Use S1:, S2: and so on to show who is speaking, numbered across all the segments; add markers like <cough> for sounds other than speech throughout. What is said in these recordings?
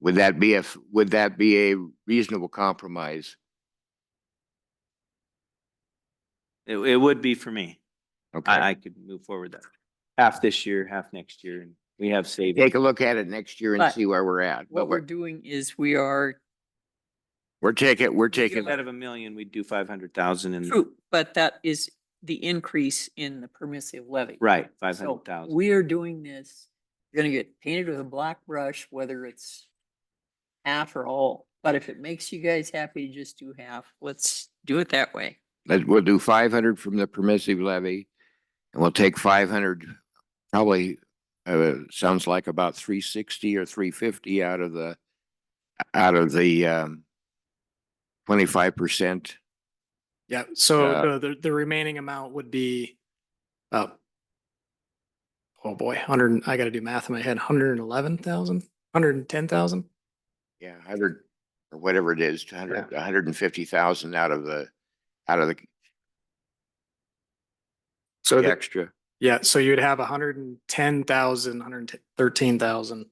S1: Would that be if, would that be a reasonable compromise?
S2: It, it would be for me.
S1: Okay,
S2: I, I could move forward that. Half this year, half next year, and we have savings.
S1: take a look at it next year and
S3: But
S1: see where we're at. But
S3: What we're
S1: we're,
S3: doing is we are,
S1: we're taking, we're
S2: If
S1: taking,
S2: Out of a million, we'd do five hundred thousand and,
S3: true, but that is the increase in the permissive levy.
S2: right, five
S3: So
S2: hundred thousand.
S3: we are doing this, you're gonna get painted with a black brush, whether it's half or all. But if it makes you guys happy, just do half. Let's do it that way.
S1: let- we'll do five hundred from the permissive levy. And we'll take five hundred, probably, uh, sounds like about three sixty or three fifty out of the, out of the, um, twenty-five percent.
S4: Yeah, so
S1: Uh,
S4: the, the, the remaining amount would be, uh, oh boy, hundred, I gotta do math in my head, hundred and eleven thousand, hundred and ten thousand?
S1: Yeah, hundred, or whatever it is, hundred, hundred and fifty thousand out of the, out of the
S4: So, the-
S1: extra.
S4: yeah, so you'd have a hundred and ten thousand, hundred and thirteen thousand.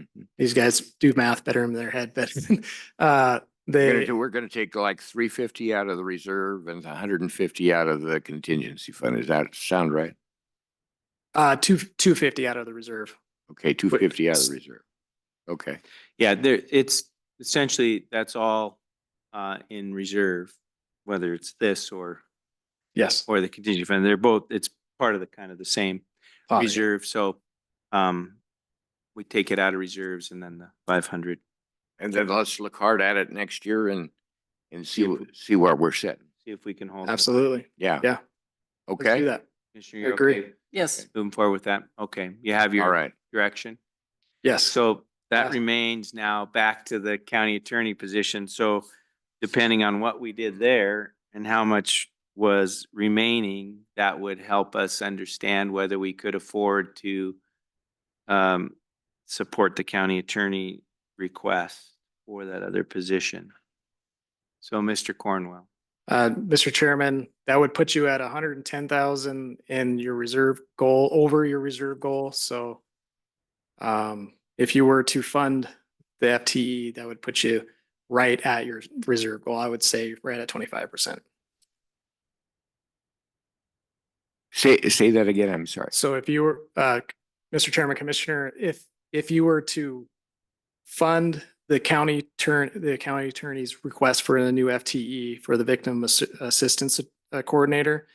S1: Mhm.
S4: These guys do math better in their head, but, <laughs> uh,
S1: We're
S4: they,
S1: gonna do, we're gonna take like three fifty out of the reserve and hundred and fifty out of the contingency fund. Does that sound right?
S4: uh, two, two fifty out of the reserve.
S1: Okay, two fifty out of the
S4: s-
S1: reserve. Okay,
S2: Yeah, there, it's essentially, that's all, uh, in reserve, whether it's this or,
S4: Yes.
S2: or the contingency fund. They're both, it's part of the kind of the same
S4: Fine.
S2: reserve, so, um, we take it out of reserves and then the five hundred.
S1: and then let's look hard at it next year and, and see,
S2: See if
S1: wh- see where we're sitting.
S2: See if we can hold. it.
S4: Absolutely.
S1: Yeah.
S4: Yeah. Let's do
S1: Okay,
S4: that.
S2: Commissioner, you're
S4: Agree.
S2: okay
S3: Yes,
S2: Moving forward with that. Okay, you have
S1: all
S2: your
S1: right.
S2: direction.
S4: Yes.
S2: So that
S4: Yes.
S2: remains now back to the county attorney position. So depending on what we did there and how much was remaining, that would help us understand whether we could afford to um, support the county attorney request for that other position. So Mr. Cornwell,
S4: Uh, Mr. Chairman, that would put you at hundred and ten thousand in your reserve goal, over your reserve goal, so. Um, if you were to fund the FTE, that would put you right at your reserve goal, I would say right at twenty-five percent.
S1: Say, say that again. I'm sorry.
S4: So if you were, uh, Mr. Chairman Commissioner, if, if you were to fund the county turn, the county attorney's request for a new FTE for the victim assi- assistance uh, coordinator,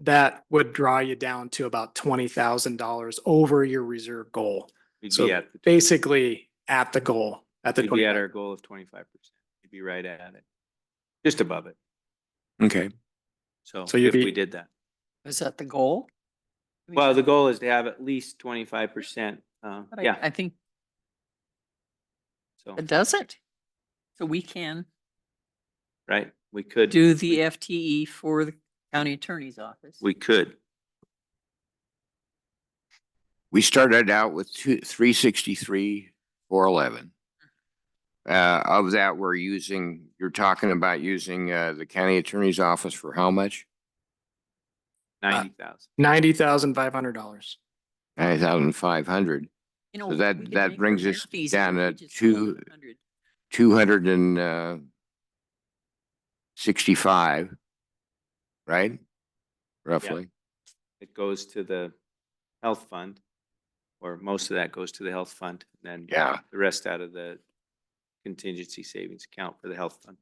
S4: that would draw you down to about twenty thousand dollars over your reserve goal.
S2: we'd
S4: So
S2: be at,
S4: basically at the goal, at the.
S2: we'd be at
S4: 25.
S2: our goal of twenty-five percent. We'd be right at it, just above it.
S1: Okay.
S2: So
S4: So you'd
S2: if we
S4: be-
S2: did that.
S3: is that the goal? I mean,
S2: Well, the goal is to have at least twenty-five percent, uh,
S3: but I-
S2: yeah,
S3: I think
S2: so,
S3: it doesn't. So we can
S2: right, we could.
S3: do the FTE for the county attorney's office.
S2: We could,
S1: We started out with two, three sixty-three, four eleven. Uh, of that, we're using, you're talking about using, uh, the county attorney's office for how much?
S3: Uh,
S2: ninety thousand.
S4: Ninety thousand five hundred dollars.
S1: Nine thousand five hundred.
S3: You know,
S1: So that-
S3: we could
S1: that
S3: make our
S1: brings us
S3: math easier
S1: down
S3: if we
S1: to
S3: just go
S1: two-
S3: 100.
S1: two hundred and uh, sixty-five, right? Roughly.
S2: It goes to the health fund, or most of that goes to the health fund, and then
S1: Yeah,
S2: the rest out of the contingency savings account for the health fund.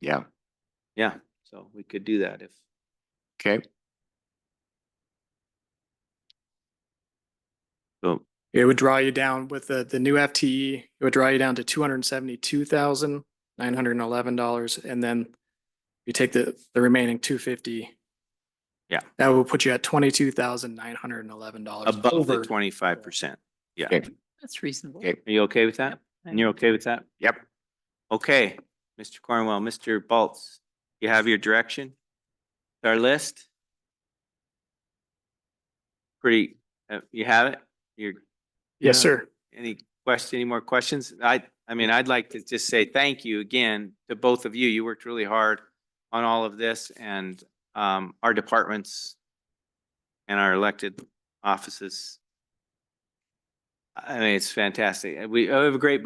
S1: yeah.
S2: Yeah, so we could do that if,
S1: Okay.
S2: so,
S4: It would draw you down with the, the new FTE, it would draw you down to two hundred and seventy-two thousand, nine hundred and eleven dollars, and then you take the, the remaining two fifty.
S2: Yeah.
S4: That will put you at twenty-two thousand, nine hundred and eleven dollars.
S2: above the twenty-five percent. Yeah,
S1: Okay.
S2: are
S3: That's reasonable.
S1: Okay.
S2: you okay with that?
S3: Yep,
S2: And you're okay with that?
S1: Yep.
S2: Okay, Mr. Cornwell, Mr. Baltz, you have your direction? Our list? Pretty, uh, you have it? You're,
S4: Yes,
S2: Yeah.
S4: sir.
S2: any question, any more questions? I, I mean, I'd like to just say thank you again to both of you. You worked really hard on all of this and, um, our departments and our elected offices. I mean, it's fantastic. We I have a great